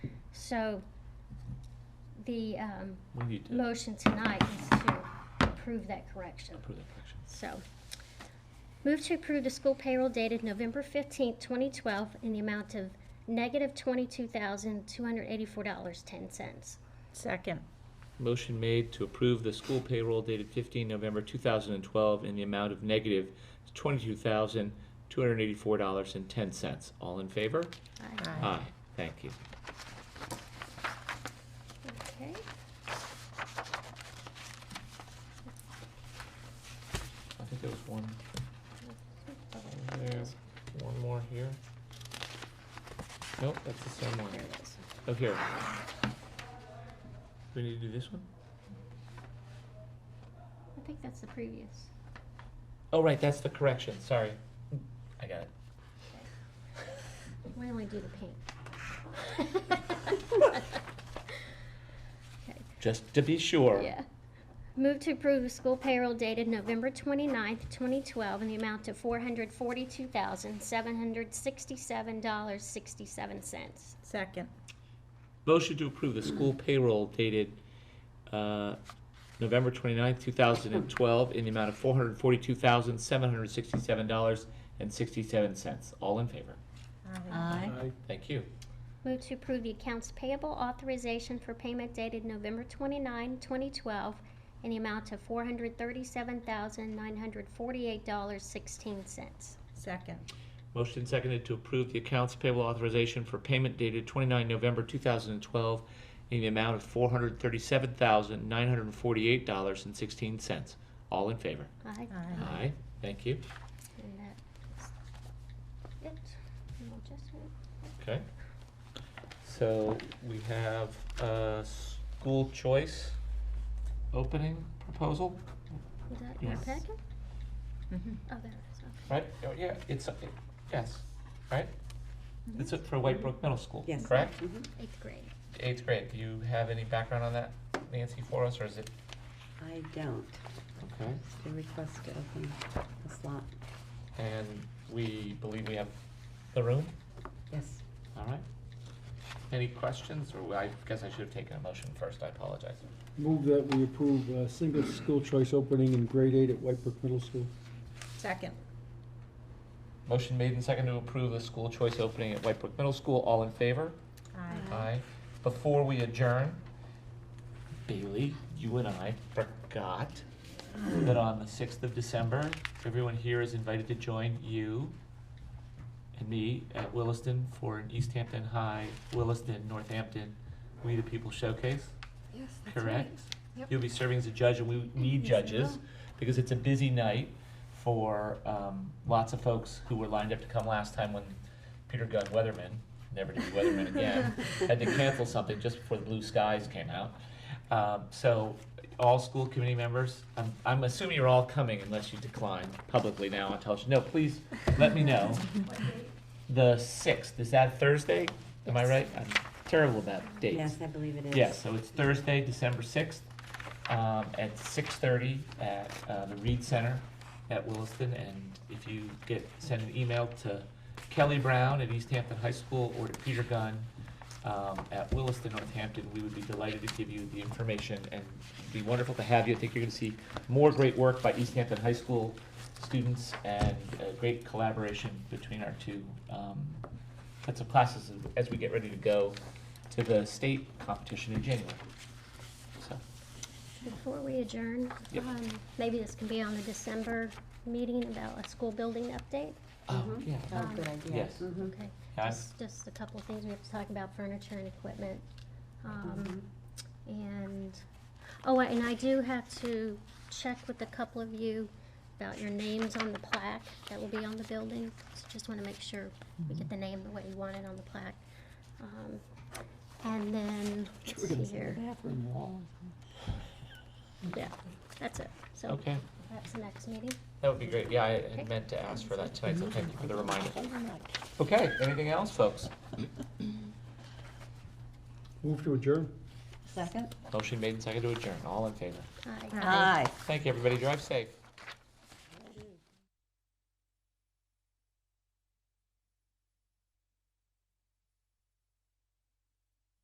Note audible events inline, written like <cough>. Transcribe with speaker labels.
Speaker 1: So the um,
Speaker 2: We need to
Speaker 1: motion tonight is to approve that correction.
Speaker 2: approve that correction.
Speaker 1: So, move to approve the school payroll dated November fifteenth, twenty twelve, in the amount of negative twenty-two thousand, two hundred eighty-four dollars, ten cents.
Speaker 3: Second.
Speaker 2: Motion made to approve the school payroll dated 15 November 2012 in the amount of negative $22,284.10. All in favor? Aye. Thank you.
Speaker 1: Okay.
Speaker 2: I think there was one there, one more here. Nope, that's the same one.
Speaker 1: There it is.
Speaker 2: Oh, here. We need to do this one?
Speaker 1: I think that's the previous.
Speaker 2: Oh, right, that's the correction, sorry. I got it.
Speaker 1: We only do the pink. <laughs>
Speaker 2: Just to be sure.
Speaker 1: Yeah. Move to approve the school payroll dated November twenty-ninth, twenty-twelve, in the amount of four hundred forty-two thousand, seven hundred sixty-seven dollars, sixty-seven cents.
Speaker 3: Second.
Speaker 2: Motion to approve the school payroll dated uh, November 29th, 2012, in the amount of $442,767.67. All in favor?
Speaker 3: Aye.
Speaker 2: Thank you.
Speaker 1: Move to approve the accounts payable authorization for payment dated November 29, 2012, in the amount of $437,948.16.
Speaker 3: Second.
Speaker 2: Motion seconded to approve the accounts payable authorization for payment dated 29 November 2012, in the amount of $437,948.16. All in favor?
Speaker 1: Aye.
Speaker 3: Aye.
Speaker 2: Aye. Thank you.
Speaker 1: And that's it. No adjustment.
Speaker 2: Okay. So we have a school choice opening proposal,
Speaker 1: Is that your
Speaker 2: Yes.
Speaker 1: packet?
Speaker 3: Mhm.
Speaker 1: Oh, there it is, okay.
Speaker 2: right? Oh, Yeah, it's, uh, yes, right? It's for White Brook Middle School,
Speaker 4: Yes.
Speaker 2: correct?
Speaker 1: Eighth grade.
Speaker 2: Eighth grade, do you have any background on that, Nancy, for us, or is it?
Speaker 4: I don't.
Speaker 2: Okay.
Speaker 4: It's the request to open the slot.
Speaker 2: And we believe we have the room,
Speaker 4: Yes.
Speaker 2: all right? Any questions, or I guess I should have taken a motion first, I apologize.
Speaker 5: Move that we approve a single school choice opening in grade eight at White Brook Middle School.
Speaker 3: Second.
Speaker 2: Motion made and seconded to approve the school choice opening at White Brook Middle School, all in favor?
Speaker 3: Aye.
Speaker 2: Aye. Before we adjourn, Bailey, you and I forgot that on the sixth of December, everyone here is invited to join you and me at Williston for an East Hampton High, Williston, Northampton, We the People Showcase,
Speaker 4: Yes,
Speaker 2: correct? You'll be serving as a judge, and we need judges, because it's a busy night for, um, lots of folks who were lined up to come last time when Peter Gunn Weatherman, never to be Weatherman again, had to cancel something just before the blue skies came out. Um, so, all school committee members, I'm, I'm assuming you're all coming unless you decline publicly now on television. No, please, let me know. The sixth, is that Thursday? Am I
Speaker 1: Yes.
Speaker 2: right? I'm terrible about dates.
Speaker 4: Yes, I believe it is.
Speaker 2: Yes, so it's Thursday, December sixth, um, at six thirty at, uh, the Reed Center at Williston. And if you get, send an email to Kelly Brown at East Hampton High School or to Peter Gunn, um, at Williston, Northampton, we would be delighted to give you the information and it'd be wonderful to have you. I think you're gonna see more great work by East Hampton High School students and a great collaboration between our two, um, sets of classes as- as we get ready to go to the state competition in January. So,
Speaker 1: Before we adjourn,
Speaker 2: Yep.
Speaker 1: um, maybe this can be on the December meeting about a school building update?
Speaker 2: oh,
Speaker 4: Mhm.
Speaker 2: yeah,
Speaker 4: Oh,
Speaker 1: Um,
Speaker 4: good idea.
Speaker 2: yes.
Speaker 4: Mhm.
Speaker 1: Okay,
Speaker 2: Yeah, I'm-
Speaker 1: just, just a couple of things, we have to talk about furniture and equipment. Um,
Speaker 4: Mhm.
Speaker 1: and, oh, and I do have to check with a couple of you about your names on the plaque that will be on the building. So Just wanna make sure we get the name the way you want it on the plaque. Um, and then, let's see here, yeah, that's it. So
Speaker 2: okay,
Speaker 1: that's the next meeting.
Speaker 2: that would be great. Yeah, I
Speaker 1: Okay. Mm-hmm.
Speaker 2: had meant to ask for that tonight, so thank you for the reminder. Okay, anything else, folks?
Speaker 5: Move to adjourn.
Speaker 4: Second?
Speaker 2: Motion made and seconded to adjourn. All in favor?
Speaker 1: Aye.
Speaker 3: Aye.
Speaker 2: Thank you, everybody. Drive safe.